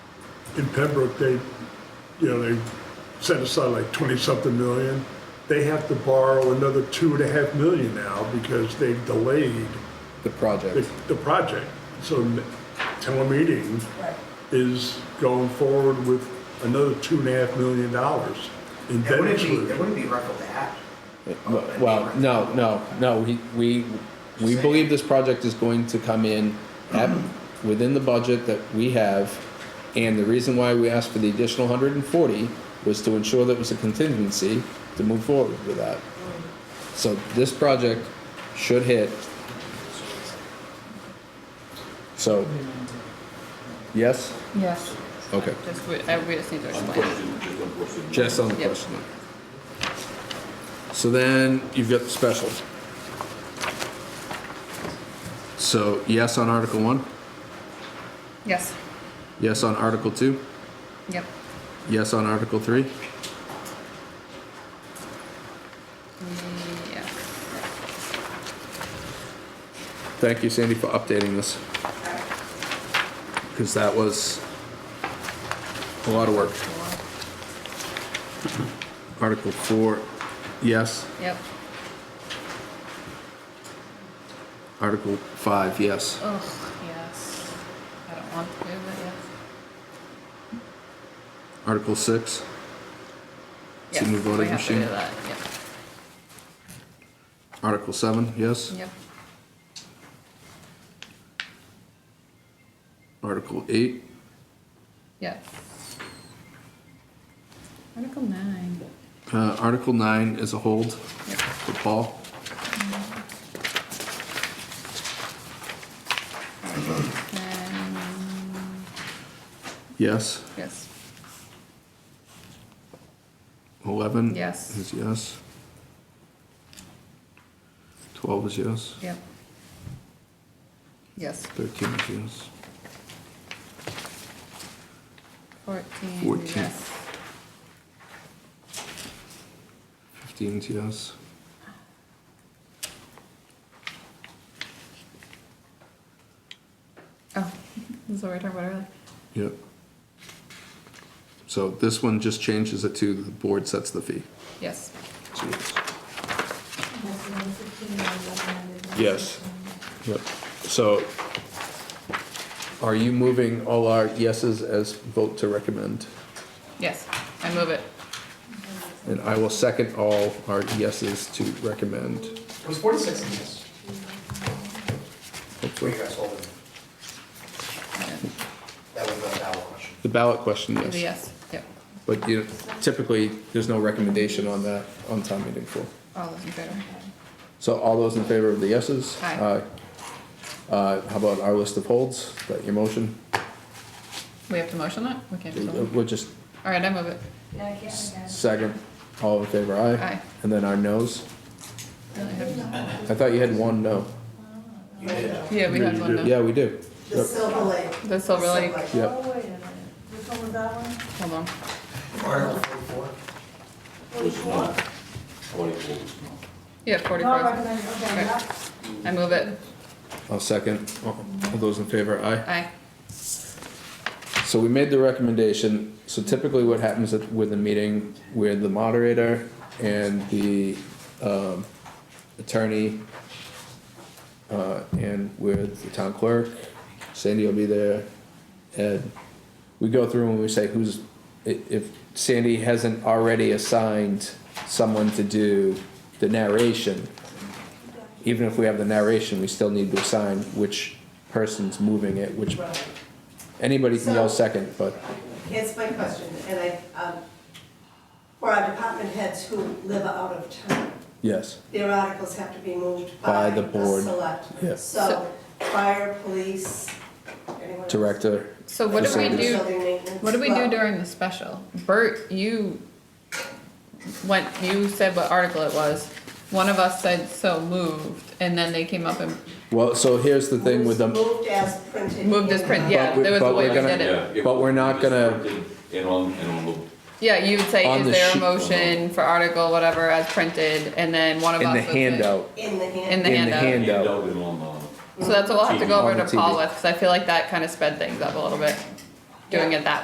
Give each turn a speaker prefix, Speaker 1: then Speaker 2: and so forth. Speaker 1: in Pembroke, they, you know, they set aside like twenty-something million. They have to borrow another two and a half million now because they've delayed the,
Speaker 2: the project.
Speaker 1: the project. So n- town meeting is going forward with another two and a half million dollars in
Speaker 3: It
Speaker 1: debt
Speaker 3: wouldn't be, it
Speaker 1: exclusion.
Speaker 3: wouldn't be Ruckel to have.
Speaker 2: Well, no, no, no, we, we, we believe this project is going to come in at, within the budget that we have. And the reason why we asked for the additional hundred and forty was to ensure that it was a contingency to move forward with that. So this project should hit. So, yes,
Speaker 4: Yes.
Speaker 2: okay,
Speaker 4: Just, we, I- we just need to explain. it.
Speaker 2: just on the
Speaker 4: Yep.
Speaker 2: question. So then you've got the special. So yes on Article One,
Speaker 4: Yes,
Speaker 2: yes on Article Two,
Speaker 4: yep.
Speaker 2: yes on Article Three,
Speaker 4: Yeah.
Speaker 2: Thank you, Sandy, for updating this. Because that was a lot of work. Article four, yes.
Speaker 4: Yep.
Speaker 2: Article five, yes.
Speaker 4: Ugh, yes. I don't want to do that, yes.
Speaker 2: Article six, It's a
Speaker 4: Yes,
Speaker 2: new voting
Speaker 4: we have to
Speaker 2: machine.
Speaker 4: do that,
Speaker 2: Article seven, yes.
Speaker 4: yep, yep.
Speaker 2: Article eight,
Speaker 4: Yes. Article nine.
Speaker 2: uh, Article nine is a hold
Speaker 4: Yep.
Speaker 2: for Paul.
Speaker 4: Nine,
Speaker 2: Yes.
Speaker 4: yes.
Speaker 2: Eleven?
Speaker 4: Yes.
Speaker 2: Is yes. Twelve is yes.
Speaker 4: Yep. Yes.
Speaker 2: Thirteen is yes.
Speaker 4: Fourteen,
Speaker 2: 14.
Speaker 4: yes.
Speaker 2: Fifteen is yes.
Speaker 4: Oh, this is what we were talking about earlier.
Speaker 2: Yep. So this one just changes it to the board sets the fee.
Speaker 4: Yes.
Speaker 2: So yes. Yes.
Speaker 5: Yes.
Speaker 2: Yep. So are you moving all our yeses as vote to recommend?
Speaker 4: Yes, I move it.
Speaker 2: And I will second all our yeses to recommend.
Speaker 3: It was forty-six in this. Where
Speaker 2: Hopefully.
Speaker 3: you guys holding? That was the ballot question.
Speaker 2: The ballot question,
Speaker 4: The yes, yep.
Speaker 2: But you, typically, there's no recommendation on that, on town meeting floor.
Speaker 4: All those in favor?
Speaker 2: So all those in favor of the yeses?
Speaker 4: Aye.
Speaker 2: Aye. Uh, how about our list of holds, Is that your motion? uh,
Speaker 4: We have to motion that? We can't just.
Speaker 2: We'll just
Speaker 4: All right, I move it.
Speaker 2: second, all in favor, aye?
Speaker 4: Aye.
Speaker 2: And then our no's? I thought you had one no.
Speaker 3: You did.
Speaker 4: Yeah, we had one now.
Speaker 2: Yeah, we do.
Speaker 6: The Silver Lake.
Speaker 4: That's all really,
Speaker 2: Yep,
Speaker 5: Oh, wait a minute. Which one was that one?
Speaker 4: hold on.
Speaker 3: Article forty-four.
Speaker 5: Forty-four?
Speaker 4: Yeah,
Speaker 5: Not
Speaker 4: forty-four.
Speaker 5: recommended, okay,
Speaker 4: Okay.
Speaker 5: yeah.
Speaker 4: I move it.
Speaker 2: I'll second, all all those in favor, aye?
Speaker 4: Aye.
Speaker 2: So we made the recommendation, so typically what happens at- with a meeting where the moderator and the um, attorney uh, and with the town clerk, Sandy will be there, and we go through and we say who's, i- if Sandy hasn't already assigned someone to do the narration, even if we have the narration, we still need to assign which person's moving it, which Anybody can yell second, but
Speaker 6: It's my question, and I, um, for our department heads who live out of town,
Speaker 2: yes,
Speaker 6: their articles have to be moved
Speaker 2: By
Speaker 6: by
Speaker 2: the
Speaker 6: the
Speaker 2: board.
Speaker 6: select.
Speaker 2: Yeah.
Speaker 6: So, fire, police, anyone else?
Speaker 2: director.
Speaker 4: So what do we
Speaker 2: Facilities.
Speaker 4: do,
Speaker 6: Building maintenance.
Speaker 4: what do we do
Speaker 6: Well,
Speaker 4: during the special? Bert, you went, you said what article it was. One of us said so moved, and then they came up and
Speaker 2: Well, so here's the thing with them,
Speaker 6: Moved as printed.
Speaker 4: moved this print,
Speaker 6: in-
Speaker 4: yeah,
Speaker 2: But we-
Speaker 4: there was a
Speaker 2: but
Speaker 4: way
Speaker 2: we're
Speaker 4: we
Speaker 2: gonna-
Speaker 4: did it.
Speaker 2: it. But we're not gonna-
Speaker 7: And on, and on the.
Speaker 4: Yeah, you would say,
Speaker 2: On
Speaker 4: is
Speaker 2: the
Speaker 4: there a
Speaker 2: sheet.
Speaker 4: motion for article whatever as printed, and then one of
Speaker 2: in
Speaker 4: us
Speaker 2: the
Speaker 4: would say-
Speaker 2: handout,
Speaker 6: In the hand.
Speaker 4: In the
Speaker 2: in the
Speaker 4: handout.
Speaker 2: handout.
Speaker 7: and on the.
Speaker 4: So that's what we'll have to go
Speaker 2: On
Speaker 4: over
Speaker 2: the
Speaker 4: to Paul
Speaker 2: TV.
Speaker 4: with, because I feel like that kind of sped things up a little bit, doing it that